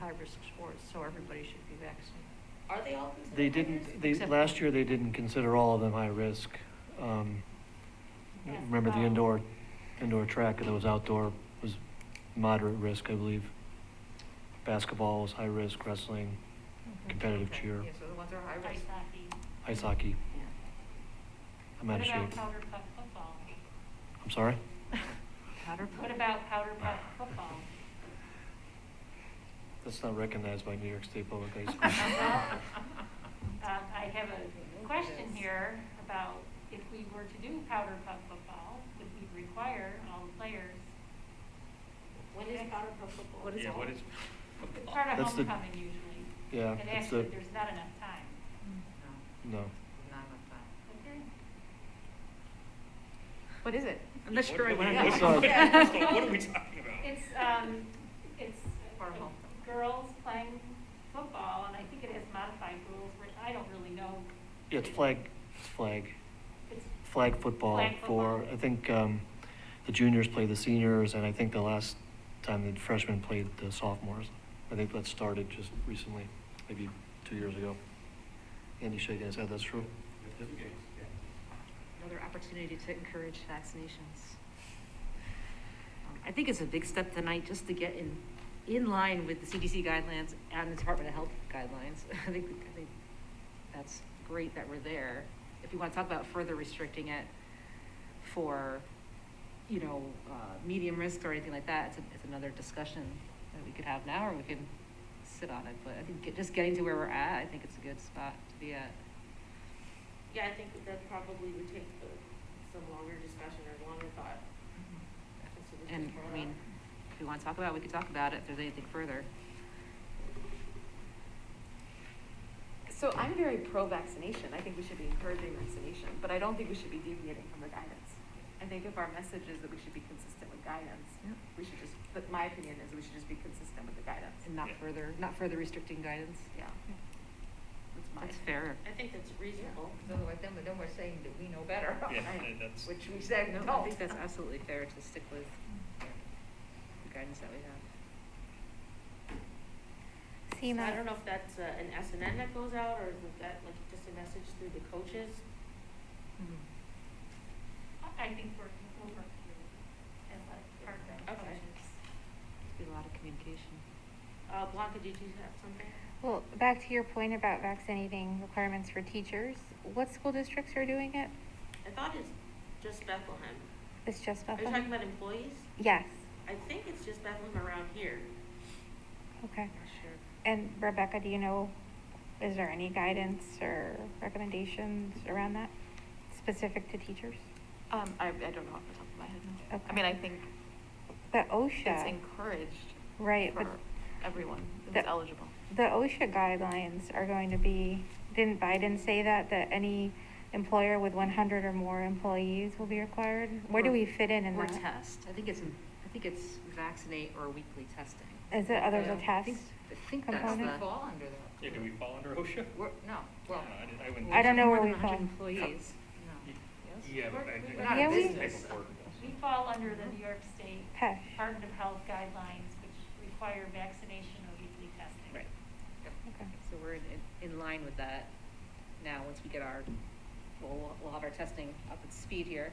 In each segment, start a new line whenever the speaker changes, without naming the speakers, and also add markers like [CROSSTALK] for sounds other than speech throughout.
high-risk sports, so everybody should be vaccinated.
Are they all considered?
They
high-risk?
didn't, they,
Except-
last year, they didn't consider all of them high risk. Um,
Yeah.
Remember the
Wow.
indoor, indoor track and those outdoor was moderate risk, I believe. Basketball was high risk, wrestling, competitive
Okay,
cheer,
Yeah, so the ones that are
Ice
high-risk.
hockey.
ice hockey. I'm out of
What
shape.
about powder puff football?
I'm sorry?
Powder
What
puff.
about powder puff
Ah.
football?
That's not recognized by New York State Public High
Well, [LAUGHS]
School.
um, I have a question here about if we were to do powder puff football, would we require all the players?
What is powder puff football?
What is
Yeah,
it? [LAUGHS]
what is?
It's part of
That's the-
homecoming usually.
Yeah,
And
it's the,
actually, there's not enough time.
no.
What
[LAUGHS]
is it?
I'm not sure I
went
What
on.
[LAUGHS] what are we talking about?
It's, um, it's
Horrible.
girls playing football, and I think it has modified rules, which I don't really know.
Yeah, it's flag, it's flag,
It's
flag football
Flag
for,
football.
I think, um, the juniors play the seniors, and I think the last time the freshmen played the sophomores. I think that started just recently, maybe two years ago. Andy shaking his head, that's true.
Another opportunity to encourage vaccinations. Um, I think it's a big step tonight just to get in, in line with the CDC guidelines and the Department of Health guidelines. [LAUGHS] I think, I think that's great that we're there. If you want to talk about further restricting it for, you know, uh, medium risk or anything like that, it's, a- it's another discussion that we could have now or we can sit on it. But I think get- just getting to where we're at, I think it's a good spot to be at.
Yeah, I think that probably would take uh, some longer discussion or longer thought. That's what we should
And,
throw
I
out.
mean, if we want to talk about it, we could talk about it, if there's anything further.
So I'm very pro-vaccination. I think we should be encouraging vaccination, but I don't think we should be deviating from the guidance. I think if our message is that we should be consistent with guidance,
Yep.
we should just, but my opinion is we should just be consistent with the guidance.
And not
Yeah.
further, not further restricting guidance.
Yeah.
Yeah.
That's my.
That's fair.
I think that's reasonable.
Because otherwise, then we- then we're saying that we know better, [LAUGHS]
Yeah, that's.
which we said we
No, I
don't.
think
[LAUGHS]
that's absolutely fair to stick with the guidance that we have.
So I don't know if that's uh, an S and N that goes out or is it that like just a message through the coaches?
I think we're, we'll work through athletic department
Okay.
coaches.
It's been a lot of communication.
Uh, Blanca, did you have something?
Well, back to your point about vaccinating requirements for teachers, what school districts are doing it?
I thought it's just Bethlehem.
It's just
Are you talking
Bethlehem?
about employees?
Yes,
I think it's just Bethlehem around here.
okay.
Not sure.
And Rebecca, do you know, is there any guidance or recommendations around that, specific to teachers?
Um, I, I don't know off the top of my head. no. I
Okay.
mean, I think
The
it's
OSHA,
encouraged
right,
for
but
everyone who's
That-
eligible.
the OSHA guidelines are going to be, didn't Biden say that, that any employer with one hundred or more employees will be required? Where do
Or-
we fit in in
Or
that?
test. I think it's, I think it's vaccinate or weekly testing.
Is it other than
I think-
tests?
I think that's
Component?
the,
Fall under that.
Yeah, do we fall under OSHA?
We're, no, well,
No, I didn't- I wouldn't.
I don't know
more
where
than
we fall.
100 employees.
Y- Yeah, but I.
We're
think
not
a Yeah, we-
business.
Type of work.
We fall under the New York State
Pesh.
Department of Health guidelines, which require vaccination or weekly testing.
Right.
Okay.
So we're in, in- in line with that now, once we get our, we'll, we'll have our testing up at speed here.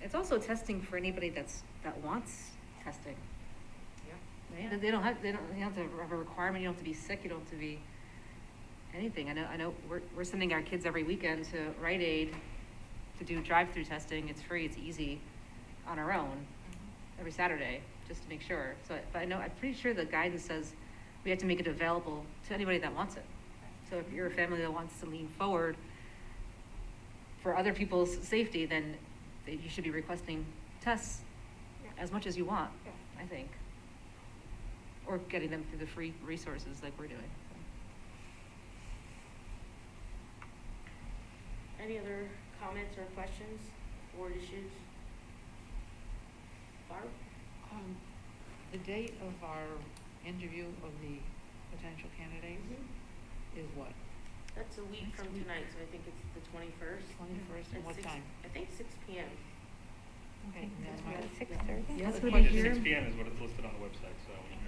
It's also testing for anybody that's, that wants testing. right? They- They don't have, they don't, they don't have to have a requirement, you don't have to be sick, you don't have to be anything. I know, I know, we're, we're sending our kids every weekend to Rite Aid to do drive-through testing. It's free, it's easy, on our own,
Mm-hmm.
every Saturday, just to make sure. So, but I know, I'm pretty sure the guidance says we have to make it available to anybody that wants it. So if you're a family that wants to lean forward for other people's safety, then you should be requesting tests as much as you want, I think. Or getting them through the free resources like we're doing.
Any other comments or questions or issues? Barb?
um, the date of our interview of the potential candidates is what?
That's a week
Next
from
week.
tonight, so I think it's the twenty-first.
Twenty-first, and what time?
I think six P M.
Okay, that's
It's
my-
about Six thirty?
Yes,
Budget Six P M is what it's listed on the website, so.